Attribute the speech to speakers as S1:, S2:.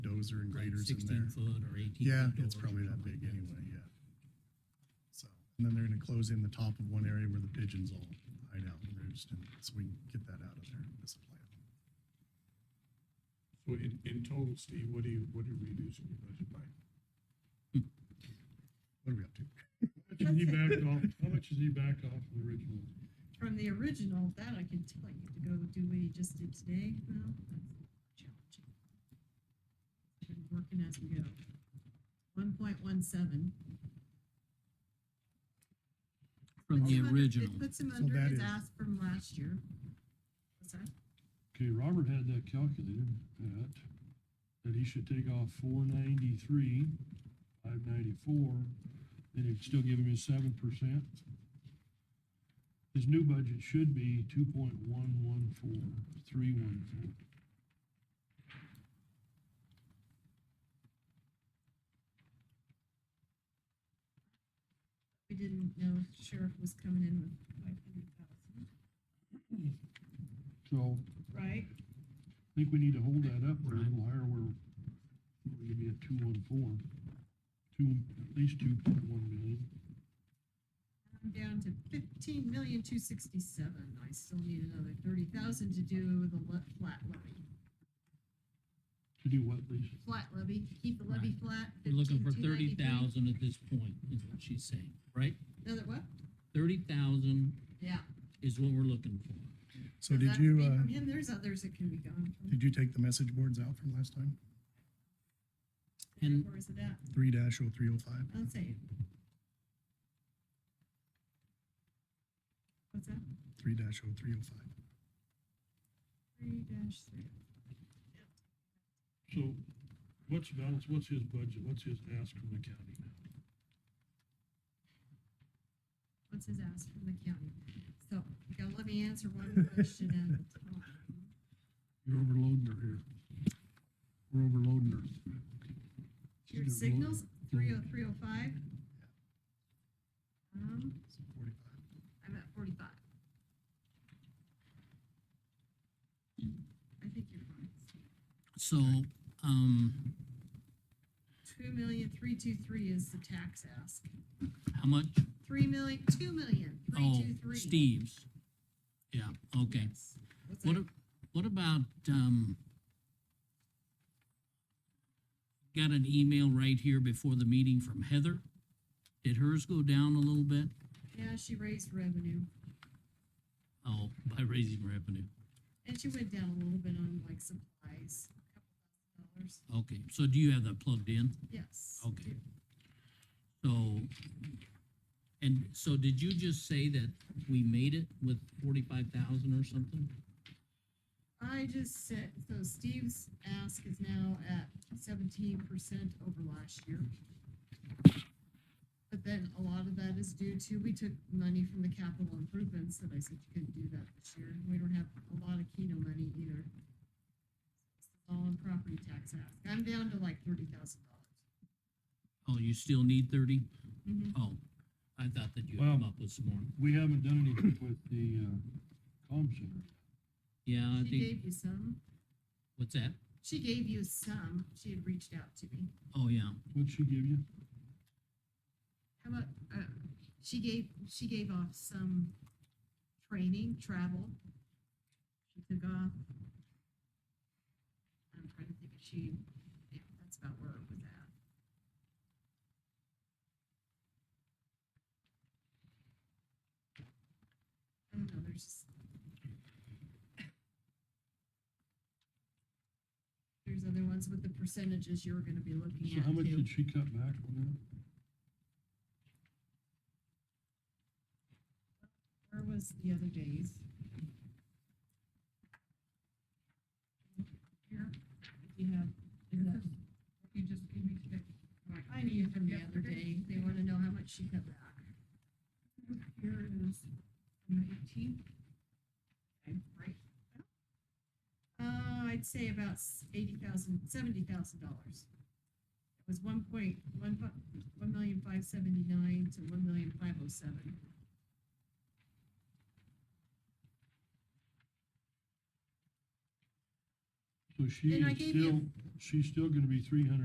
S1: bulldozer and
S2: Right,
S1: graders in
S2: sixteen
S1: there.
S2: foot or eighteen.
S1: Yeah,
S2: foot
S1: it's
S2: doors or
S1: probably that
S2: something
S1: big
S2: like
S1: anyway, yeah. So, and then they're gonna close in the top of one area where the pigeons all hide out and roost, and so we can get that out of there in this plan.
S3: So in, in total, Steve, what do you, what are we reducing your budget by?
S1: What are we up to?
S3: How much has he backed off, how much has he backed off from the original?
S4: From the original, that I can tell you, to go do what you just did today, well, that's challenging. I've Been working as we go. One point one seven.
S2: From the original.
S4: It puts him
S1: So
S4: under
S1: that
S4: his
S1: is-
S4: ask from last year. What's that?
S5: Okay, Robert had that calculated at, that he should take off four ninety-three, five ninety-four, then it'd still give him his seven percent. His new budget should be two point one one four, three one four.
S4: We didn't know if sheriff was coming in with five hundred thousand,
S5: So
S4: right?
S5: I think we need to hold that up or a
S2: Right.
S5: little higher where we could be at two one four. Two, at least two point one million.
S4: I'm down to fifteen million, two sixty-seven. I still need another thirty thousand to do the le- flat levy.
S5: To do what, Lisa?
S4: Flat levy, keep the levy flat.
S2: We're looking for
S4: 15,293.
S2: thirty thousand at this point, is what she's saying, right?
S4: Another what?
S2: Thirty thousand
S4: Yeah.
S2: is what we're looking for.
S1: So
S4: that
S1: did
S4: would
S1: you,
S4: be
S1: uh,
S4: from him. there's others that can be gone from.
S1: did you take the message boards out from last time?
S2: And
S4: Where is it at?
S1: Three dash oh three oh five?
S4: I'll say. What's that?
S1: Three dash oh three oh five.
S4: Three dash three.
S5: So what's the balance, what's his budget, what's his ask from the county now?
S4: What's his ask from the county? So, you gotta let me answer one question at a time.
S5: You're overloading her here. We're overloading her.
S4: Your signals, three oh three oh five? Um,
S1: So forty-five.
S4: I'm at forty-five. I think you're fine.
S2: so, um,
S4: Two million, three two three is the tax ask.
S2: how much?
S4: Three million, two million, three
S2: Oh,
S4: two three.
S2: Steve's. Yeah, okay.
S4: Yes. What's
S2: What,
S4: that?
S2: a- what about, um, got an email right here before the meeting from Heather? Did hers go down a little bit?
S4: Yeah, she raised revenue,
S2: Oh, by raising revenue.
S4: and she went down a little bit on like supplies, a couple thousand dollars.
S2: Okay, so do you have that plugged in?
S4: Yes.
S2: Okay. So, and so did you just say that we made it with forty-five thousand or something?
S4: I just said, so Steve's ask is now at seventeen percent over last year. But then a lot of that is due to, we took money from the capital improvements that I said you couldn't do that this year. We don't have a lot of Keno money either. All in property tax ask. I'm down to like thirty thousand dollars.
S2: Oh, you still need thirty?
S4: Mm-hmm.
S2: Oh, I thought that you had come
S5: Well-
S2: up with some more.
S5: We haven't done anything with the, uh, comm center.
S2: Yeah, I
S4: She
S2: think,
S4: gave you some.
S2: what's that?
S4: She gave you some. She had reached out to me.
S2: Oh, yeah.
S5: What'd she give you?
S4: How about, uh, she gave, she gave off some training, travel. She took off. I'm trying to think if she, yeah, that's about where it was at. I don't know, there's just. There's other ones with the percentages you're gonna be looking at too.
S5: So how much did she cut back on
S4: Where was the other days? Here, if you have, is that- you just give me the- I need it from the other day, they wanna know how much she cut back. Here is nineteen. Right. Uh, I'd say about s- eighty thousand, seventy thousand dollars. It was one point, one, fi- one million five seventy-nine to one million five oh seven.
S5: that? So she
S4: Then I
S5: is
S4: gave you-
S5: still, she's still gonna be three hundred